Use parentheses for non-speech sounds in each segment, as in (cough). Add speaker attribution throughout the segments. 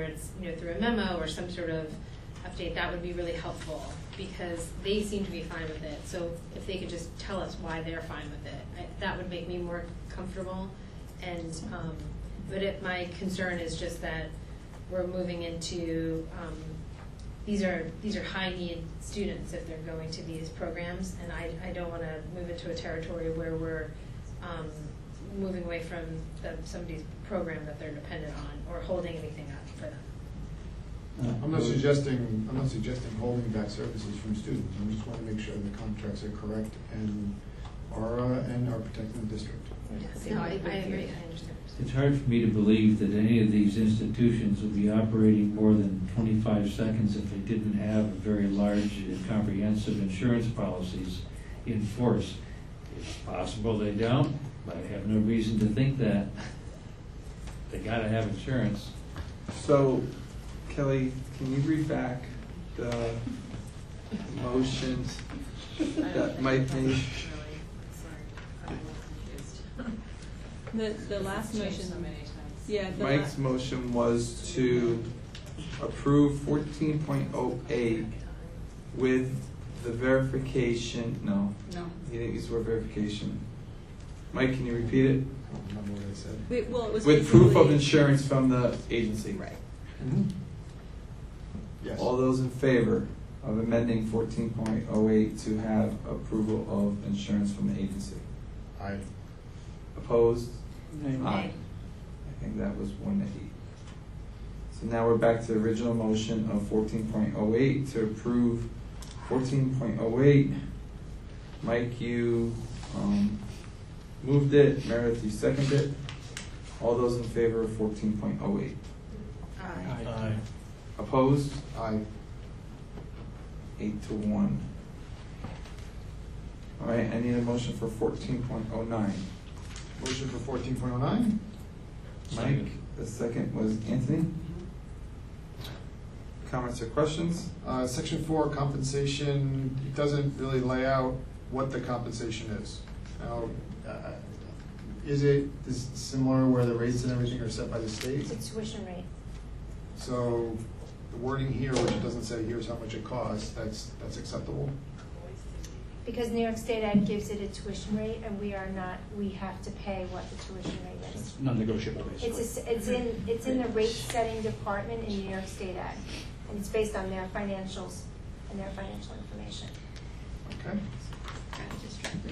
Speaker 1: whether it's, you know, through a memo or some sort of update, that would be really helpful, because they seem to be fine with it, so if they could just tell us why they're fine with it, I- that would make me more comfortable, and, um, but it, my concern is just that we're moving into, um, these are, these are high-need students if they're going to these programs, and I, I don't wanna move into a territory where we're, um, moving away from the, somebody's program that they're dependent on or holding anything up for them.
Speaker 2: Uh, I'm not suggesting, I'm not suggesting holding back services from students, I just want to make sure the contracts are correct and are, uh, and are protecting the district.
Speaker 1: Yes, no, I, I agree, I understand.
Speaker 3: It's hard for me to believe that any of these institutions would be operating more than 25 seconds if they didn't have very large and comprehensive insurance policies in force. It's possible they don't, but I have no reason to think that. They gotta have insurance.
Speaker 4: So, Kelly, can you read back the motions? That might be-
Speaker 5: The,
Speaker 6: (laughs)
Speaker 5: the last motion. Yeah, the
Speaker 4: Mike's
Speaker 5: la-
Speaker 4: motion was to approve fourteen point oh eight with the verification, no,
Speaker 7: No.
Speaker 4: he didn't use the word verification. Mike, can you repeat it?
Speaker 2: I don't remember what I said.
Speaker 5: wait, well, it was.
Speaker 4: With proof of
Speaker 5: basically-
Speaker 4: insurance from the agency. Right.
Speaker 2: Mm-hmm. Yes.
Speaker 4: All those in favor of amending fourteen point oh eight to have approval of insurance from the agency?
Speaker 2: I,
Speaker 4: Opposed? Aye. I think that was one eight. So now we're back to the original motion of fourteen point oh eight to approve fourteen point oh eight. Mike, you, um, moved it, Meredith, you seconded it. All those in favor of fourteen point oh eight?
Speaker 6: Uh,
Speaker 1: Aye.
Speaker 4: Opposed?
Speaker 2: I,
Speaker 4: Eight to one. All right, I need a motion for fourteen point oh nine.
Speaker 2: motion for fourteen point oh nine?
Speaker 4: Mike, the second was Anthony. Comments or questions?
Speaker 2: Uh, section four, compensation, it doesn't really lay out what the compensation is. Now, uh, is it, is it similar where the rates and everything are set by the state?
Speaker 8: It's a tuition rate.
Speaker 2: So the wording here, which doesn't say here's how much it costs, that's, that's acceptable?
Speaker 8: Because New York State Act gives it a tuition rate, and we are not, we have to pay what the tuition rate is.
Speaker 9: Non-negotiable,
Speaker 8: It's, a
Speaker 9: basically.
Speaker 8: s it's in, it's in the rate-setting department in New York State Act, and it's based on their financials and their financial information.
Speaker 2: Okay.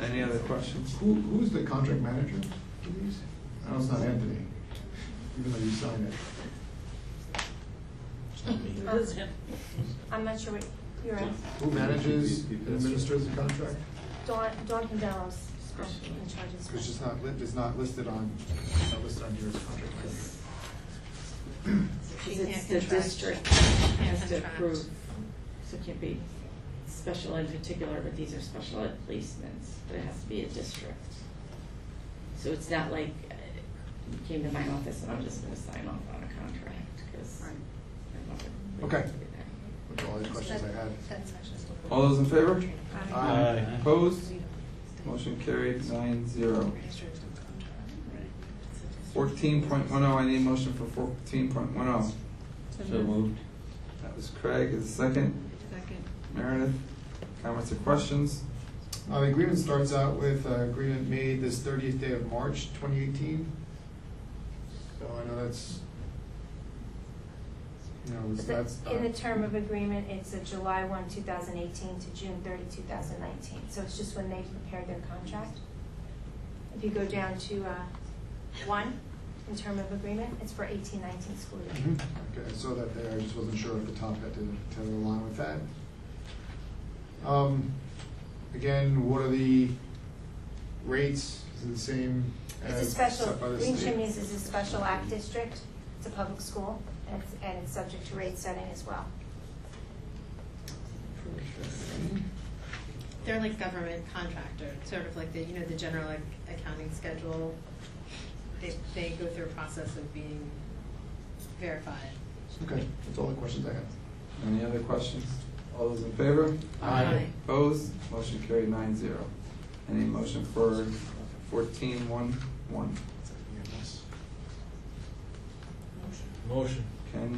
Speaker 4: Any other questions?
Speaker 2: Who, who's the contract manager? I know it's not Anthony, even though you signed it.
Speaker 8: Um, I'm not sure what, you're, at.
Speaker 2: Who manages and administers the contract?
Speaker 8: Dawn, Dawn Candelo's um, in charge of
Speaker 2: Because it's
Speaker 8: this.
Speaker 2: not, li- it's not listed on, it's not listed on here as contract manager.
Speaker 1: She can't
Speaker 6: It's the
Speaker 1: contract.
Speaker 6: district
Speaker 1: Can't
Speaker 6: has to
Speaker 1: contract.
Speaker 6: approve, so it can't be special ed particular, but these are special ed placements, but it has to be a district. So it's not like, uh, you came to my office and I'm just gonna sign off on a contract, because I'm not.
Speaker 2: Okay. Which are all the questions I had.
Speaker 4: All those in favor?
Speaker 2: Aye.
Speaker 4: Opposed? Motion carried nine zero. Fourteen point one oh, I need a motion for fourteen point one oh.
Speaker 3: So moved.
Speaker 4: That was Craig, is the second.
Speaker 5: Second.
Speaker 4: Meredith, comments or questions?
Speaker 2: Uh, the agreement starts out with uh, agreement made this thirtieth day of March, twenty eighteen. So I know that's, you know, it's- that's.
Speaker 8: But In the term of agreement, it's a July one, two thousand eighteen to June 30, 2019. so it's just when they prepared their contract. If you go down to, uh, one, in term of agreement, it's for eighteen, nineteen school year.
Speaker 2: Mhm. Okay, I saw that there, I just wasn't sure if the top had to, to align with that. Um, again, what are the rates, is it the same
Speaker 8: It's a
Speaker 2: as
Speaker 8: special,
Speaker 2: set by the
Speaker 8: Green
Speaker 2: state?
Speaker 8: Chimneys is a special act district, it's a public school, and it's, and it's subject to rate setting as well.
Speaker 1: They're like government contractor, sort of like the, you know, the general ac- accounting schedule. They, they go through a process of being verified.
Speaker 2: Okay, that's all the questions I have.
Speaker 4: Any other questions? All those in favor?
Speaker 2: Aye.
Speaker 4: Opposed? Motion carried nine zero. Any motion for fourteen one one?
Speaker 9: Motion.
Speaker 4: Ken,